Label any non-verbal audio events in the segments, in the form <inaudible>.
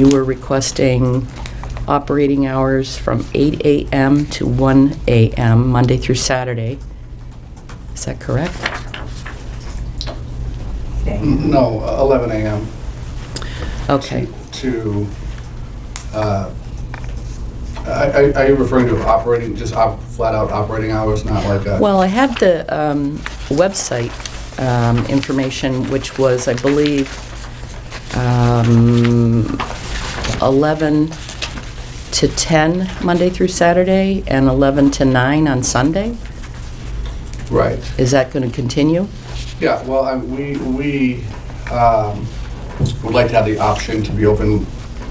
You were requesting operating hours from 8 AM to 1 AM, Monday through Saturday. Is that correct? No, 11 a.m. Okay, To, uh, I- I- are you referring to operating, just op- flat-out operating hours, not like a... well, I had the um, website um, information, which was, I believe, um, 11 to 10, Monday through Saturday, and 11 to 9 on Sunday. Right, Is that going to continue? yeah, well, I- we, we um, would like to have the option to be open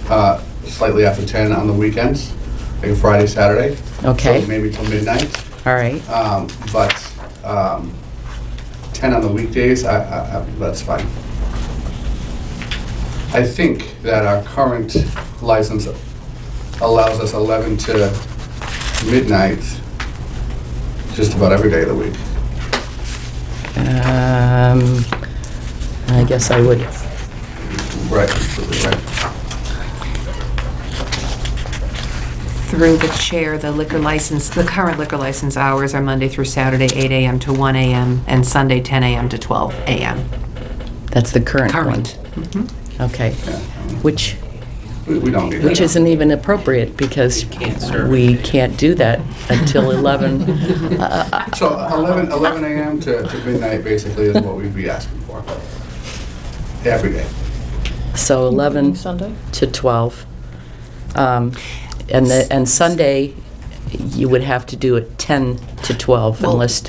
uh, slightly after 10 on the weekends, like Friday, Saturday. Okay. So Maybe till midnight. All right. Um, But um, 10 on the weekdays, I- I- I- that's fine. I think that our current license allows us 11 to midnight just about every day of the week. Um, I guess I would, Right. right. Through the chair, the liquor license, the current liquor license hours are Monday through Saturday, 8 AM to 1 AM, and Sunday, 10 AM to 12 AM. that's the current one. Mm-hmm. Current. Okay. Which, We we don't need that. which isn't even appropriate because we can't do that <laughs> until 11. Uh, So 11 11 a.m. to to midnight basically is what we'd be asking for. Every day. So 11 Sunday? to 12. Um, And the, and Sunday, you would have to do it 10 to 12 Well- unless,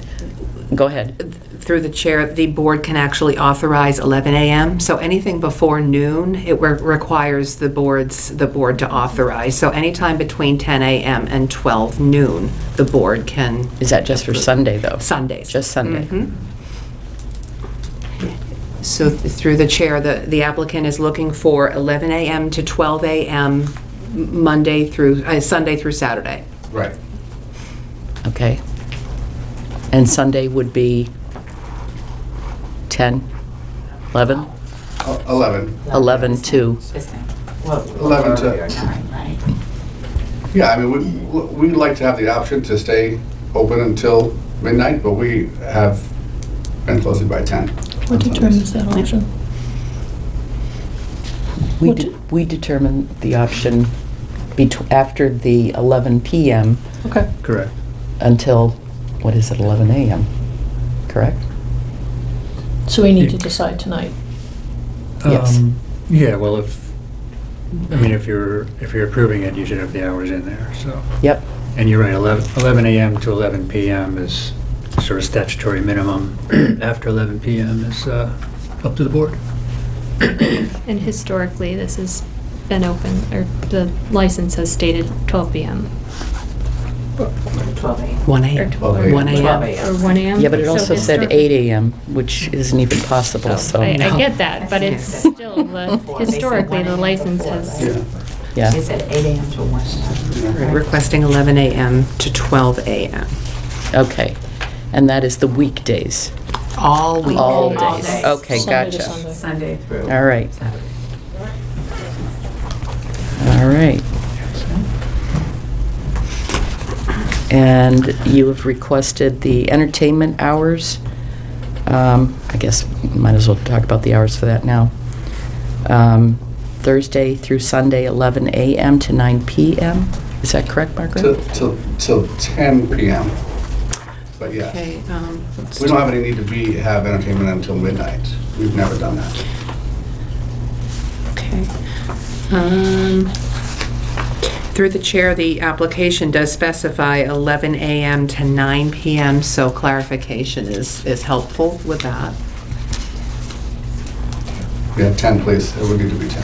go ahead. Through the chair, the board can actually authorize 11 AM, so anything before noon, it re- requires the boards, the board to authorize. So anytime between 10 AM and 12 noon, the board can, Is that just for Sunday, though? Sundays. Mm-hmm. Just Sunday? So th- through the chair, the the applicant is looking for 11 AM to 12 AM, m- Monday through, uh, Sunday through Saturday. Right. Okay. And Sunday would be 10, 11? E- 11. 11 to, 11 to, yeah, I mean, we- we'd like to have the option to stay open until midnight, but we have been closing by 10. What determines that option? we What- de- we determine the option betw- after the 11 PM Okay. Correct. until, what is it, 11 AM, correct? So we need to decide tonight. Yes. Um, Yeah, well, if, I mean, if you're, if you're approving it, you should have the hours in there, so. Yep, And you're right, 11 11 AM to 11 PM is sort of statutory minimum. <clears throat> After 11 PM is uh, up to the board. And historically, this has been open, or the license has stated 12 PM 1 or AM. 12 12 or 1 AM. or 1 AM. yeah, but it Um, So also said historic- 8 AM, which isn't even possible, so, I, I No. get that, but it's still, the historically, the license Yeah. has, yeah. Is it eight AM to one? Requesting 11 AM to 12 AM. Okay. And that is the weekdays, All week. all All days. days. Okay, Sunday to gotcha. Sunday. Sunday through. All right. All right. And you have requested the entertainment hours. Um, I guess might as well talk about the hours for that now. Um, Thursday through Sunday, 11 a.m. to 9 p.m. Is that correct, Till, Margaret? till, till 10 PM. But yeah, Okay, um, let's we don't have any need to be, have entertainment until midnight. We've never done that. Okay. Um, Through the chair, the application does specify 11 a.m. to 9 p.m., so clarification is, is helpful with that. We have 10, please, it would need to be 10.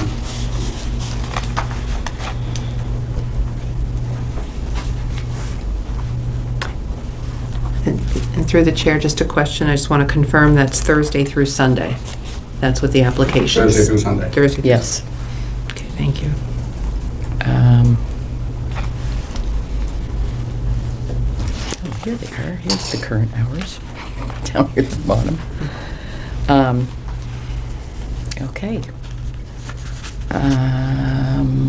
And and through the chair, just a question, I just want to confirm that's Thursday through Sunday. That's what the application is. Thursday through Sunday. Thursday. through- Yes. Okay, thank you. Um, oh, Here they are, here's the current hours, <laughs> down here at the bottom. Um, Okay. Uh, Um,